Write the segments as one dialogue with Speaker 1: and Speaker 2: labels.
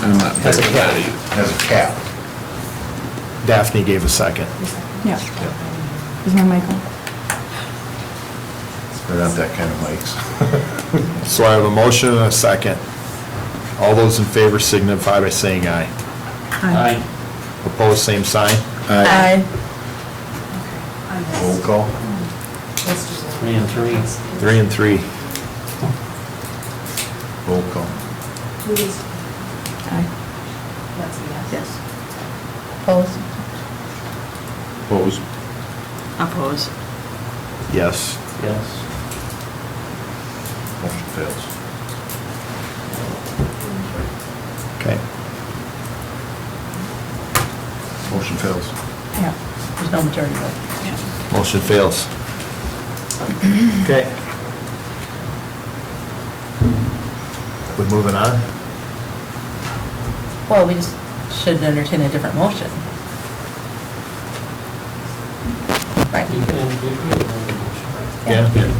Speaker 1: I'm not
Speaker 2: That's
Speaker 1: very
Speaker 2: a
Speaker 1: good.
Speaker 2: cap.
Speaker 3: has a cap.
Speaker 4: Daphne gave a second.
Speaker 5: Yeah. Is my mic on?
Speaker 3: They're not that kind of mics.
Speaker 4: So I have a motion and a second. All those in favor signify by saying aye.
Speaker 2: Aye.
Speaker 4: Opposed, same sign.
Speaker 1: Aye.
Speaker 3: Roll call.
Speaker 2: Three and three.
Speaker 4: Three and three.
Speaker 3: Roll call.
Speaker 5: Aye. Yes. Opposed?
Speaker 3: Opposed?
Speaker 6: Oppose.
Speaker 4: Yes.
Speaker 2: Yes.
Speaker 3: Motion fails.
Speaker 4: Okay.
Speaker 3: Motion fails.
Speaker 5: Yeah, there's no majority vote.
Speaker 4: Motion fails. Okay. We moving on?
Speaker 5: Well, we just should entertain a different motion. Right.
Speaker 2: You can- you can-
Speaker 4: Yeah?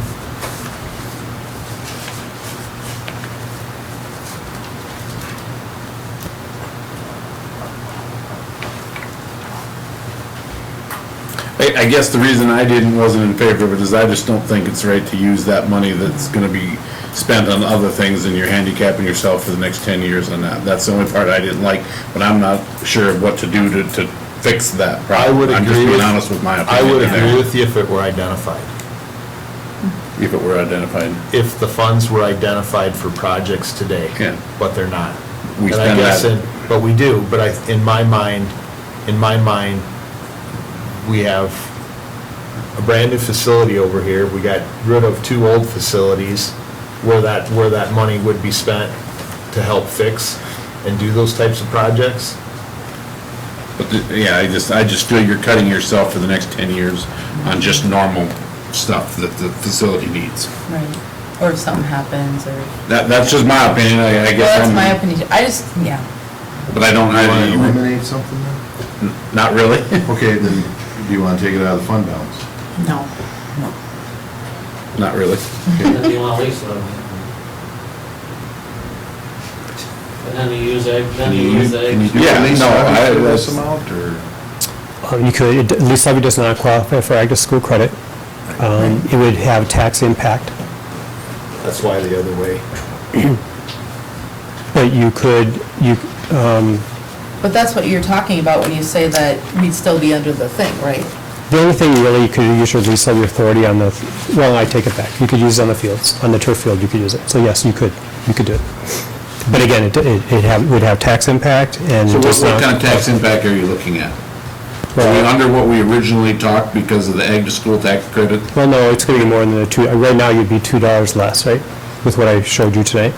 Speaker 1: I, I guess the reason I didn't, wasn't in favor of it is I just don't think it's right to use that money that's gonna be spent on other things and you're handicapping yourself for the next ten years on that. That's the only part I didn't like, but I'm not sure what to do to, to fix that
Speaker 4: I
Speaker 1: problem.
Speaker 4: would agree.
Speaker 1: I'm just being
Speaker 4: with-
Speaker 1: honest with my
Speaker 4: I
Speaker 1: opinion.
Speaker 4: would
Speaker 1: there,
Speaker 4: agree with you if it were identified.
Speaker 1: If it were identified.
Speaker 4: If the funds were identified for projects today.
Speaker 1: Yeah.
Speaker 4: But they're not.
Speaker 1: We
Speaker 4: And I
Speaker 1: spend
Speaker 4: guess
Speaker 1: that-
Speaker 4: in- But we do, but I, in my mind, in my mind, we have a brand-new facility over here. We got rid of two old facilities where that, where that money would be spent to help fix and do those types of projects.
Speaker 1: But, the- yeah, I just, I just feel you're cutting yourself for the next ten years on just normal stuff that the facility needs.
Speaker 5: Right, or if something happens, or,
Speaker 1: That, that's just my opinion, I, I
Speaker 5: well,
Speaker 1: guess.
Speaker 5: that's
Speaker 1: I'm-
Speaker 5: my opinion, I just, yeah.
Speaker 1: But I don't,
Speaker 3: Want to
Speaker 1: I,
Speaker 3: eliminate something then?
Speaker 1: not really.
Speaker 3: Okay, then, do you want to take it out of the fund balance?
Speaker 5: No. No.
Speaker 1: Not really.
Speaker 2: And then you want to lease them. And then you use, it- then you use it.
Speaker 3: Can you do
Speaker 1: Yeah,
Speaker 3: at least
Speaker 1: no, I-
Speaker 3: half of this
Speaker 1: that's-
Speaker 3: amount, or?
Speaker 7: Uh, You could, at least levy does not qualify for ag school credit. Um, It would have tax impact,
Speaker 4: That's why the other way.
Speaker 7: but you could, you, um,
Speaker 5: But that's what you're talking about when you say that we'd still be under the thing, right?
Speaker 7: the only thing really, you could use your lease levy authority on the, well, I take it back, you could use it on the fields, on the turf field, you could use it. So yes, you could, you could do it. But again, it it it have- would have tax impact and.
Speaker 1: So what,
Speaker 7: does
Speaker 1: what
Speaker 7: not-
Speaker 1: kind of tax impact are you looking at? Are we
Speaker 7: Well,
Speaker 1: under what we originally talked because of the ag to school tax credit?
Speaker 7: Well, no, it's going to be more than the two, uh, right now you'd be $2 less, right? With what I showed you today,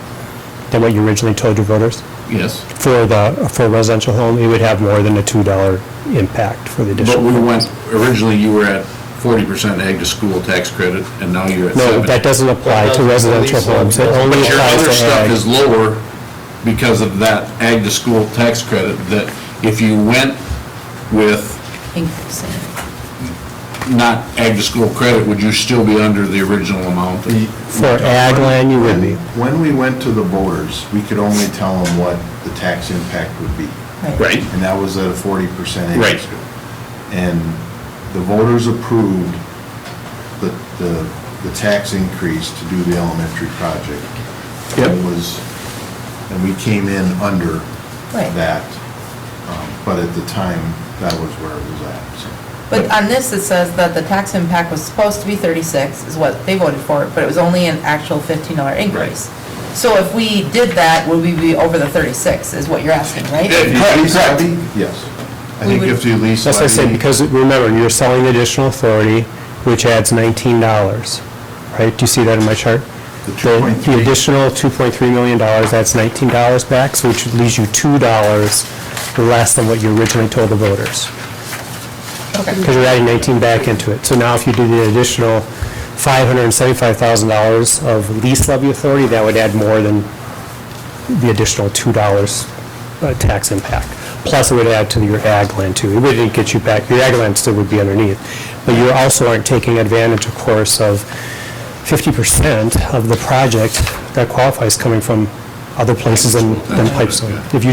Speaker 7: than what you originally told your voters.
Speaker 1: Yes.
Speaker 7: for the, for a residential home, it would have more than a $2 impact for the
Speaker 1: But
Speaker 7: additional.
Speaker 1: we went, originally you were at forty percent ag to school tax credit and now you're at
Speaker 7: No, that
Speaker 1: seventy.
Speaker 7: doesn't apply to
Speaker 4: Well, that's the
Speaker 7: residential
Speaker 4: lease
Speaker 7: homes, it
Speaker 4: levy.
Speaker 7: only
Speaker 1: But your
Speaker 7: applies
Speaker 1: other
Speaker 7: to
Speaker 1: stuff is
Speaker 7: ag.
Speaker 1: lower because of that ag to school tax credit that if you went with
Speaker 5: Increasing.
Speaker 1: not ag to school credit, would you still be under the original amount?
Speaker 7: For ag land, you would be.
Speaker 3: When we went to the voters, we could only tell them what the tax impact would be.
Speaker 1: Right.
Speaker 3: And that was at a forty percent
Speaker 1: Right.
Speaker 3: increase. And the voters approved the, the, the tax increase to do the elementary project.
Speaker 7: Yep.
Speaker 3: It was, and we came in under
Speaker 5: Right.
Speaker 3: that, um, but at the time, that was where it was at, so.
Speaker 5: But on this, it says that the tax impact was supposed to be 36, is what they voted for, but it was only an actual $15 increase. So if we did that, would we be over the 36, is what you're asking, right?
Speaker 3: Lease levy? Yes. I
Speaker 5: We
Speaker 3: think
Speaker 5: would-
Speaker 3: if you lease
Speaker 7: That's what I said,
Speaker 3: levy-
Speaker 7: because remember, you're selling additional authority, which adds $19, right? Do you see that in my chart?
Speaker 3: The
Speaker 7: The
Speaker 3: 2.3.
Speaker 7: the additional $2.3 million, that's $19 back, so which leaves you $2 less than what you originally told the voters.
Speaker 5: Okay.
Speaker 7: because you're adding 19 back into it. So now if you do the additional $575,000 of lease levy authority, that would add more than the additional $2 uh, tax impact. Plus, it would add to your ag land too. It wouldn't get you back, your ag land still would be underneath. But you also aren't taking advantage, of course, of 50% of the project that qualifies coming from other places than than Pipestone. If you